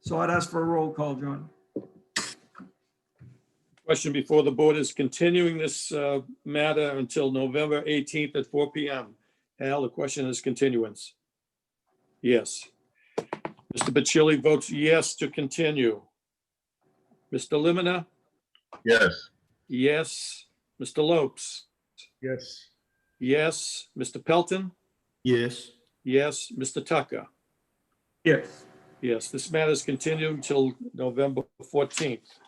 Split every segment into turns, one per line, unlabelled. So I'd ask for a roll call, John.
Question before the board is continuing this uh, matter until November 18th at 4 PM. Al, the question is continuance. Yes. Mr. Bacilli votes yes to continue. Mr. Limina,
Yes.
yes. Mr. Lopes,
Yes.
yes. Mr. Pelton,
Yes.
yes. Mr. Tucker,
Yes.
yes. This matter is continued until November 14th.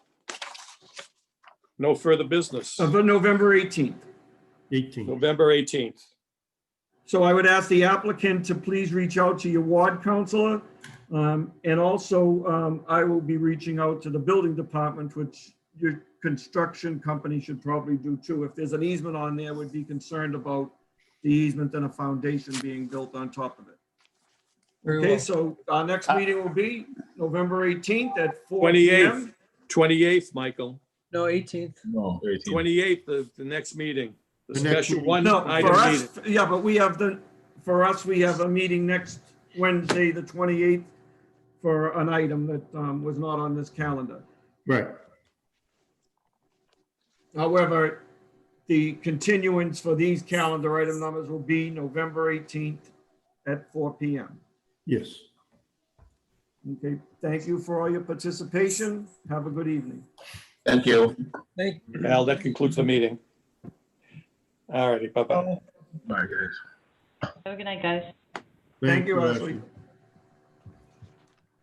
No further business.
Of the November 18th.
Eighteen.
November 18th.
So I would ask the applicant to please reach out to your ward counselor. Um, And also, um, I will be reaching out to the building department, which your construction company should probably do too. If there's an easement on there, would be concerned about the easement and a foundation being built on top of it.
Very
Okay,
well. Uh,
so our next meeting will be November 18th at 4
28th,
PM.
28th, Michael.
No, 18th.
No, eighteen.
28th, the, the next meeting, the
The next
special
meeting.
one
No,
item
for
meeting.
us, yeah, but we have the, for us, we have a meeting next Wednesday, the 28th, for an item that um, was not on this calendar.
Right.
However, the continuance for these calendar item numbers will be November 18th at 4 PM.
Yes.
Okay, thank you for all your participation. Have a good evening.
Thank you.
Thank
Al, that concludes the meeting. All righty, bye-bye.
Bye, guys.
Have a good night, guys.
Thank you,
Ashley.
Ashley.